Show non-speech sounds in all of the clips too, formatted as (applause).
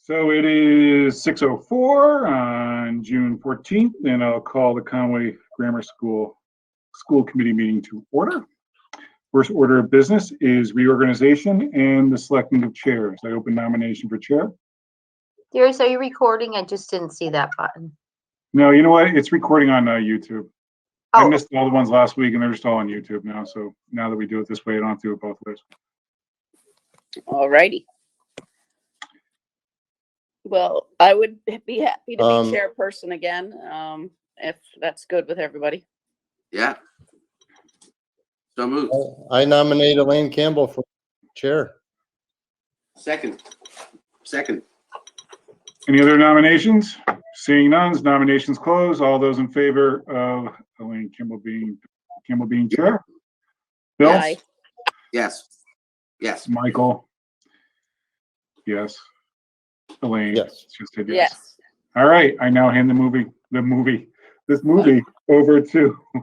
So it is 6:04 on June 14th, and I'll call the Conway Grammar School School Committee meeting to order. First order of business is reorganization and the selecting of chairs. I open nomination for chair. Darius, are you recording? I just didn't see that button. No, you know what? It's recording on uh, YouTube. I Oh. missed all the ones last week, and they're just all on YouTube now. So now that we do it this way, I don't have to do it both ways. All righty. Well, I would be happy to be Um, chairperson again, um, if that's good with everybody. Yeah. So moved. I nominate Elaine Campbell for chair. Second. Second. Any other nominations? Seeing none, nominations closed. All those in favor of Elaine Kimball being, Kimball being chair? Bill? Aye. Yes. Yes. Michael? Yes. Elaine? Yes. She said yes. Yes. All right, I now hand the movie, the movie, this movie over to. (laughs)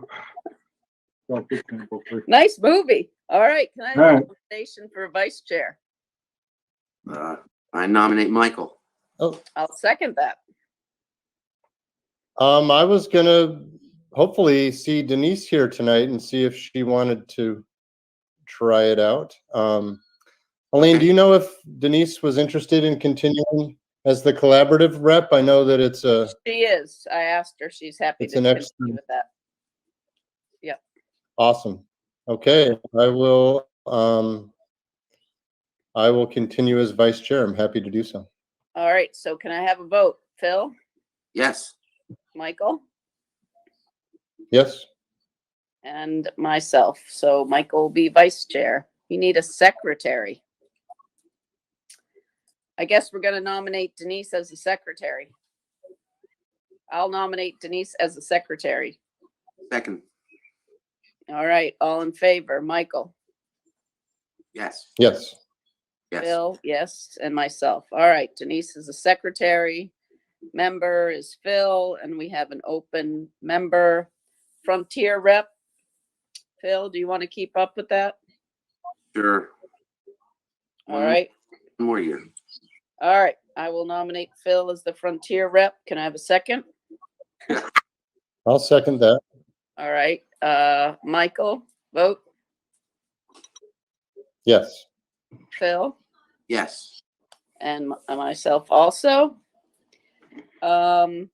Dr. Kimball, please. Nice movie. All right. Can I have All a right. nomination for vice chair? Uh, I nominate Michael. I'll second that. Um, I was gonna hopefully see Denise here tonight and see if she wanted to try it out. Um, Elaine, do you know if Denise was interested in continuing as the collaborative rep? I know that it's uh, a, She is. I asked her. She's happy It's to an continue excellent- with that. awesome. Okay, I will, um, I will continue as vice chair. I'm happy to do so. All right. So can I have a vote? Phil, Yes. Michael, Yes? and myself. So Michael will be vice chair. You need a secretary. I guess we're gonna nominate Denise as the secretary. I'll nominate Denise as the secretary. Second. All right, all in favor, Michael, Yes. Yes. Yes. Phil, yes, and myself. All right, Denise is the secretary. Member is Phil, and we have an open member. Frontier rep. Phil, do you want to keep up with that? Sure. All Mm-hmm. right. One more year. All right, I will nominate Phil as the Frontier rep. Can I have a second? I'll second that. All right, uh, Michael, vote, Yes. Phil, Yes. and m- and myself also. Um,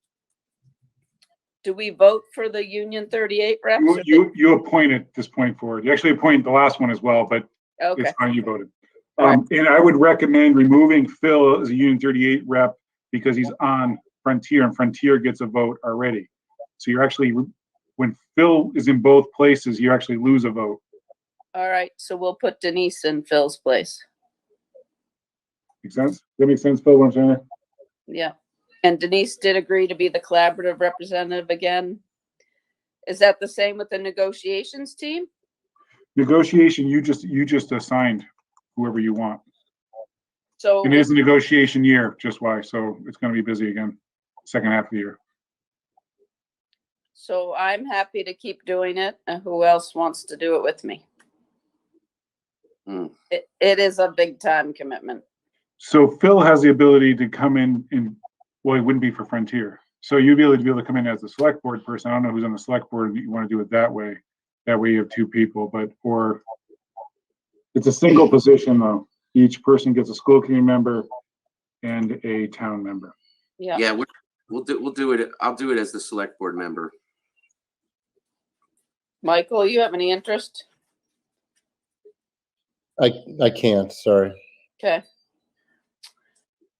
do we vote for the Union thirty-eight reps? You, or they- you, you appoint at this point forward. You actually appoint the last one as well, but Okay, It's fine, you voted. All right. Um, and I would recommend removing Phil as a Union thirty-eight rep because he's on Frontier and Frontier gets a vote already. So you're actually, when Phil is in both places, you actually lose a vote. all right, so we'll put Denise in Phil's place. Make sense? That makes sense, Phil, what I'm saying? Yeah, and Denise did agree to be the collaborative representative again. Is that the same with the negotiations team? Negotiation, you just, you just assigned whoever you want. So. And it is a negotiation year, just why, so it's gonna be busy again, second half of the year. So I'm happy to keep doing it. And who else wants to do it with me? Hmm. It, it is a big time commitment. So Phil has the ability to come in and, well, it wouldn't be for Frontier. So you'd be able to be able to come in as the select board person. I don't know who's on the select board, if you want to do it that way. That way you have two people, but, or it's a single position though. Each person gets a school committee member and a town member. Yeah. Yeah, we're, we'll do, we'll do it. I'll do it as the select board member. Michael, you have any interest? I, I can't, sorry. Okay.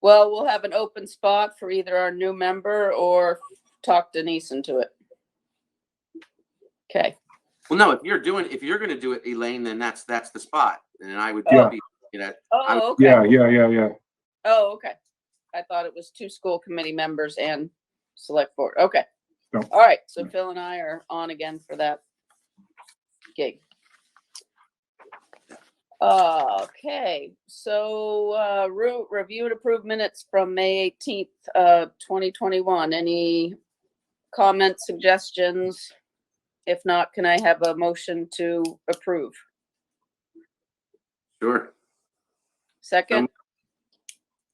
Well, we'll have an open spot for either our new member or talk Denise into it. Okay. Well, no, if you're doing, if you're gonna do it, Elaine, then that's, that's the spot. And I would Yeah. be, you know, I'm- Oh, okay. Yeah, yeah, yeah, yeah. Oh, okay. I thought it was two school committee members and select board. Okay. No. All right, so No. Phil and I are on again for that gig. Okay, so, uh, root, review and approve minutes from May eighteenth, uh, twenty twenty-one. Any comments, suggestions? If not, can I have a motion to approve? sure. Second,